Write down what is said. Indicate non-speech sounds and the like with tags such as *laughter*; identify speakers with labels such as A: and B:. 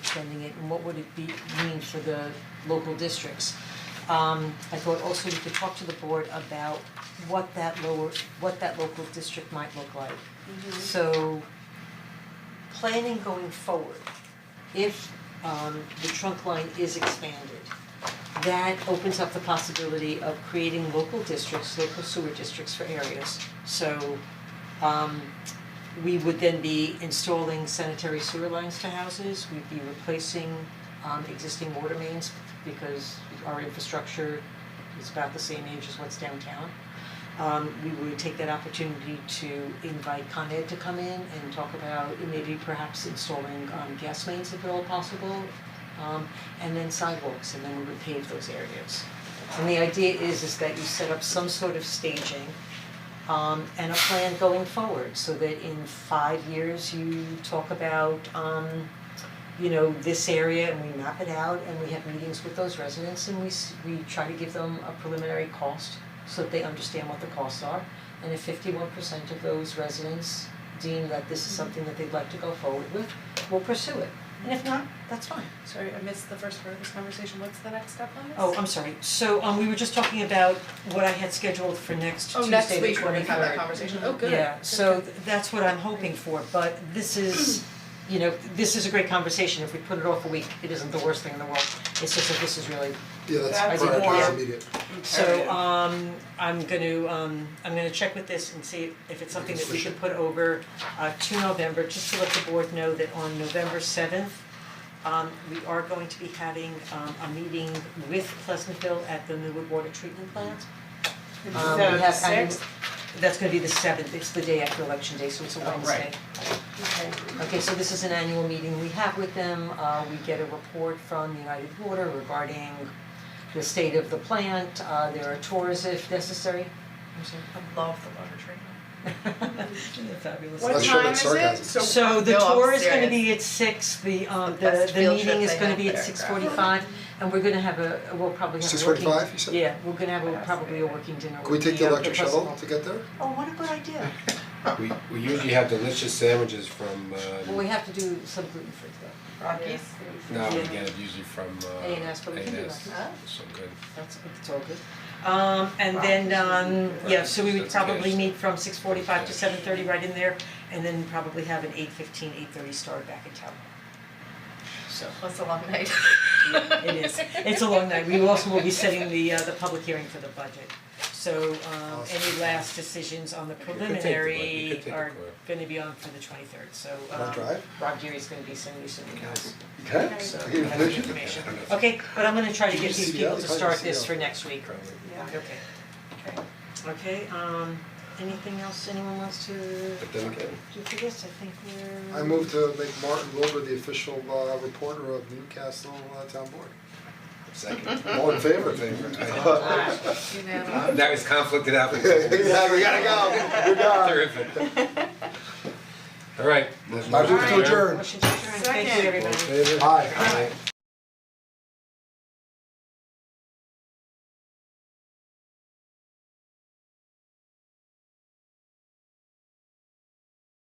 A: extending it and what would it be mean for the local districts. Um I thought also we could talk to the board about what that lower, what that local district might look like. So planning going forward, if um the trunk line is expanded, that opens up the possibility of creating local districts, local sewer districts for areas. So um we would then be installing sanitary sewer lines to houses, we'd be replacing um existing water mains because our infrastructure is about the same age as what's downtown. Um we would take that opportunity to invite Con Ed to come in and talk about maybe perhaps installing um gas mains if at all possible. Um and then sidewalks and then we would pave those areas. And the idea is is that you set up some sort of staging um and a plan going forward so that in five years you talk about um you know, this area and we map it out and we have meetings with those residents and we s- we try to give them a preliminary cost so that they understand what the costs are. And if fifty one percent of those residents deem that this is something that they'd like to go forward with, we'll pursue it. And if not, that's fine.
B: Sorry, I missed the first part of this conversation, what's the next step on this?
A: Oh, I'm sorry, so um we were just talking about what I had scheduled for next Tuesday,
B: Oh,
A: the
B: next week we're gonna
A: 23rd.
B: have that conversation, oh, good.
A: Yeah,
B: Good,
A: so
B: good.
A: th- that's what I'm hoping for, but this is, *clears throat* you know, this is a great conversation, if we put it off a week, it isn't the worst thing in the world. It's just that this is really,
C: Yeah,
B: That's
C: that's prior,
A: more-
C: that's immediate.
A: so um I'm gonna um I'm gonna check with this and see if it's something that we should put over uh to November, just to let the board know that on November seventh um we are going to be having um a meeting with Pleasantville at the Millwood Water Treatment Plant. Um, we
B: So,
A: have- and
B: sixth?
A: That's gonna be the seventh, it's the day after election day, so it's a
B: Oh, right.
A: Wednesday. Okay, so this is an annual meeting we have with them, uh, we get a report from United Water regarding the state of the plant, uh, there are tours if necessary. I'm
B: *laughs*
A: sorry.
B: I love the water treatment.
A: Fabulous.
B: Oh,
C: What That's sure that's sarcasm.
A: So the
B: No, I'm
A: tour is gonna
B: serious.
A: be at six, the um
B: The
A: the
B: best
A: the
B: field
A: meeting
B: trip
A: is
B: they
A: gonna
B: have
A: be at
B: there,
A: six forty five, and we're gonna have a, we'll probably have a working.
C: 6:45, you said?
A: Yeah, we're gonna have a probably a working dinner
C: Can we
A: with
C: take the
A: uh,
C: electric shuttle
A: President.
C: to get there?
A: Oh, what a good idea,
D: We we usually have delicious sandwiches from uh
A: well, we have to do some gluten free though,
B: Rockies?
D: no, we get it usually from uh
A: A and S, but we can do
D: A&S.
A: that.
D: So good.
A: that's, it's all good. Um and then um, yeah, so we would
D: That's okay.
A: probably meet from six forty five to seven thirty right in there, and then probably have an eight fifteen, eight thirty start back in town. So.
B: That's a long night.
A: *laughs* It is, it's a long night, we also will be setting the uh the public hearing for the budget. So um any last decisions on the
D: could take the budget, you
A: preliminary
D: could take
A: are
D: it quick.
A: gonna be on for the twenty third, so um
C: Wanna drive?
A: Rob Geary's gonna be sending you some emails,
C: Okay.
A: so
C: I
A: I
C: get a
A: have the
C: vision.
A: information. Okay, but I'm gonna try to
C: Did
A: get
C: you
A: these
C: see
A: people
C: that?
A: to
C: How did you
A: start
C: see
A: this
C: that?
A: for next week,
D: Probably.
A: okay. Okay, um anything else anyone wants to
D: But then again,
A: do for this, I think we're.
C: I move to make Martin Wilbur the official uh, reporter of Newcastle uh, Town Board.
A: *laughs*
D: second.
C: All in favor?
B: You know,
D: *laughs* That was conflicted out.
C: *laughs*
A: *laughs*
C: Yeah, we gotta go, we're done.
D: Terrific. All right.
C: I move to adjourn.
A: Motion to adjourn. thank you
B: Second.
A: everybody.
D: All in favor?
C: Aye.
D: Aye.